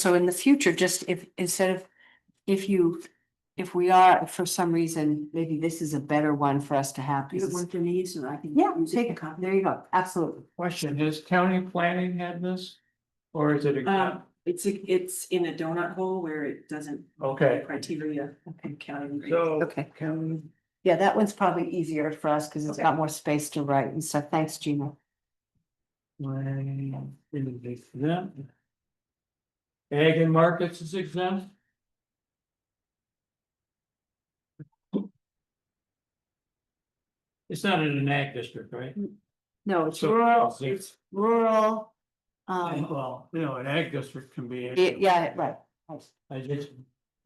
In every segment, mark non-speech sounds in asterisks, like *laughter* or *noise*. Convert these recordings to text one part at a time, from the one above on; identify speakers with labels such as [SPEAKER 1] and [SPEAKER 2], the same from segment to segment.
[SPEAKER 1] So in the future, just if, instead of, if you, if we are, if for some reason, maybe this is a better one for us to have.
[SPEAKER 2] You
[SPEAKER 1] because-
[SPEAKER 2] want to use or I can.
[SPEAKER 1] Yeah,
[SPEAKER 2] use it
[SPEAKER 1] take
[SPEAKER 2] for
[SPEAKER 1] a
[SPEAKER 2] copy?
[SPEAKER 1] copy. There you go. Absolutely.
[SPEAKER 3] Question, has county planning had this? Or is it? a
[SPEAKER 2] Um, it's, a- it's in a donut hole where it doesn't.
[SPEAKER 3] Okay.
[SPEAKER 2] Criteria and counting.
[SPEAKER 3] So.
[SPEAKER 1] Okay.
[SPEAKER 3] County.
[SPEAKER 1] Yeah, that one's probably easier for us because it's got more space to write and stuff. Thanks, Gina.
[SPEAKER 3] Planning is exempt. Ag and markets is exempt. It's not in an ag district, right?
[SPEAKER 1] No, it's
[SPEAKER 3] So-
[SPEAKER 1] rural, it's rural. Um,
[SPEAKER 3] Well, you know, an ag district can be.
[SPEAKER 1] yeah, yeah, right.
[SPEAKER 3] I just,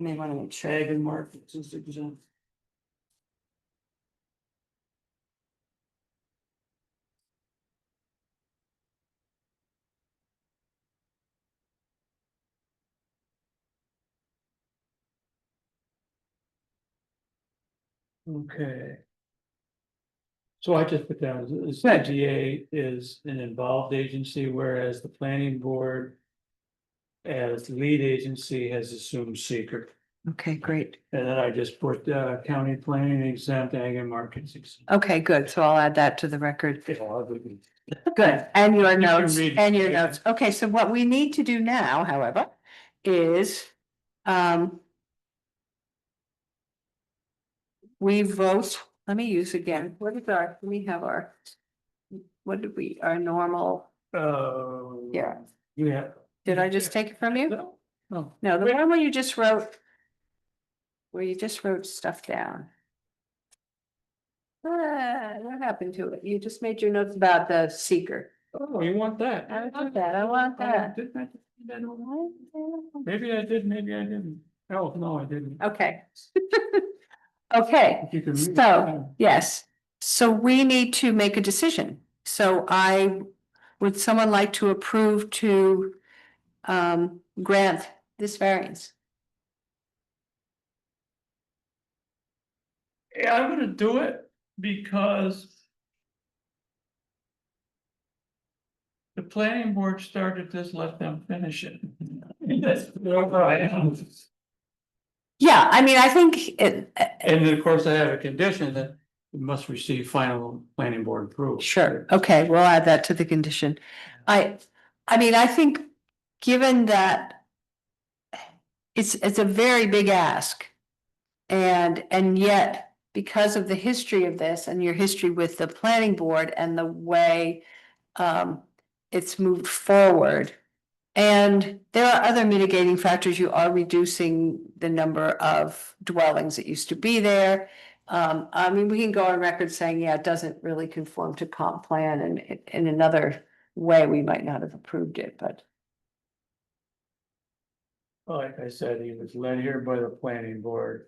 [SPEAKER 1] May want to make sure.
[SPEAKER 3] ag and markets is exempt. Okay. So I just put down, the CGA is an involved agency, whereas the planning board. As lead agency has assumed secret,
[SPEAKER 1] Okay, great.
[SPEAKER 3] and then I just put uh county planning exempt, ag and markets. exempt.
[SPEAKER 1] Okay, good. So I'll add that to the record.
[SPEAKER 3] Yeah, I would-
[SPEAKER 1] Good, and your
[SPEAKER 3] can
[SPEAKER 1] notes,
[SPEAKER 3] read it,
[SPEAKER 1] and your
[SPEAKER 3] yeah.
[SPEAKER 1] notes. Okay, so what we need to do now, however, is, um. We vote, let me use again, what is our, we have our. What did we, our normal,
[SPEAKER 3] Uh.
[SPEAKER 1] Yeah.
[SPEAKER 3] Yeah.
[SPEAKER 1] did I just take it from you?
[SPEAKER 3] No, no.
[SPEAKER 1] No, the one where you just wrote. Where you just wrote stuff down. Ah, what happened to it? You just made your notes about the seeker.
[SPEAKER 3] Oh, you want that? Oh,
[SPEAKER 1] I want that, I want that.
[SPEAKER 3] Didn't I- didn't I do that? Maybe I did, maybe I didn't. Oh, no, I didn't.
[SPEAKER 1] Okay. *laughs* Okay,
[SPEAKER 3] If you can read it,
[SPEAKER 1] So- yes, so we need to make a decision. So I, would someone like to approve to um grant this variance?
[SPEAKER 3] Yeah, I'm gonna do it because. The planning board started this, let them finish it. That's where I am.
[SPEAKER 1] Yeah, I mean, I think it, uh,
[SPEAKER 3] And then, of course, I have a condition that it must receive final planning board approval.
[SPEAKER 1] sure, okay, we'll add that to the condition. I, I mean, I think, given that. It's, it's a very big ask. And, and yet, because of the history of this and your history with the planning board and the way. Um, it's moved forward. And there are other mitigating factors, you are reducing the number of dwellings that used to be there. Um, I mean, we can go on record saying, yeah, it doesn't really conform to comp plan and in- in another way, we might not have approved it, but.
[SPEAKER 3] Like I said, he was led here by the planning board.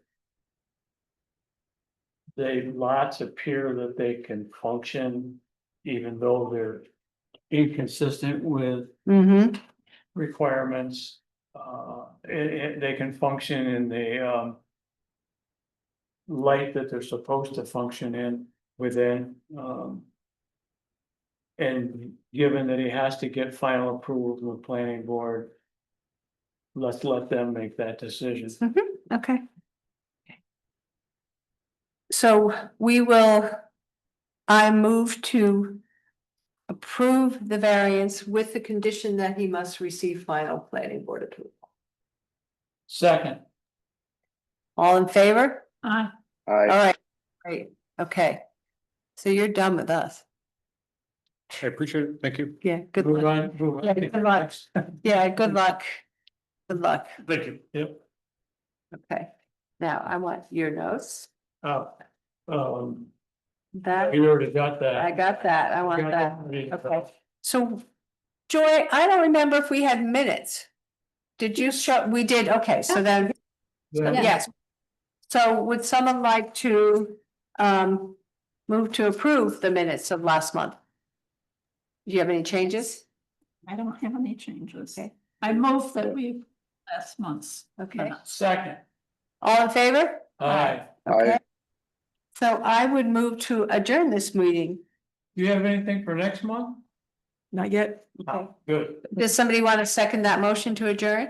[SPEAKER 3] They lots appear that they can function, even though they're inconsistent with
[SPEAKER 1] Mm-hmm,
[SPEAKER 3] requirements. Uh, it, it- they can function in the, um. Light that they're supposed to function in within, um. And given that he has to get final approval from the planning board. Let's let them make that decision.
[SPEAKER 1] okay. So we will, I move to approve the variance with the condition that he must receive final planning board approval.
[SPEAKER 3] Second,
[SPEAKER 1] All in favor? All
[SPEAKER 4] I,
[SPEAKER 1] right, great, okay. So you're done with us.
[SPEAKER 4] I appreciate it. Thank you.
[SPEAKER 1] Yeah, good
[SPEAKER 3] move
[SPEAKER 1] luck.
[SPEAKER 3] on, move
[SPEAKER 1] Yeah, good
[SPEAKER 3] on.
[SPEAKER 1] luck. Yeah, good luck. Good luck.
[SPEAKER 3] Thank you, yep,
[SPEAKER 1] Okay. Now I want your notes.
[SPEAKER 3] oh, um,
[SPEAKER 1] That,
[SPEAKER 3] you already got that.
[SPEAKER 1] I got that. I want that.
[SPEAKER 3] Okay.
[SPEAKER 1] Okay. So Joy, I don't remember if we had minutes. Did you show, we did, okay, so then, yes. So would someone like to um move to approve the minutes of last month? Do you have any changes?
[SPEAKER 5] I don't have any changes.
[SPEAKER 1] Okay.
[SPEAKER 5] I move that we, last month's.
[SPEAKER 1] Okay,
[SPEAKER 3] Second,
[SPEAKER 1] all in favor?
[SPEAKER 3] aye.
[SPEAKER 1] Okay.
[SPEAKER 4] Aye.
[SPEAKER 1] So I would move to adjourn this meeting.
[SPEAKER 3] Do you have anything for next month?
[SPEAKER 2] Not yet.
[SPEAKER 3] Good.
[SPEAKER 1] Does somebody want to second that motion to adjourn?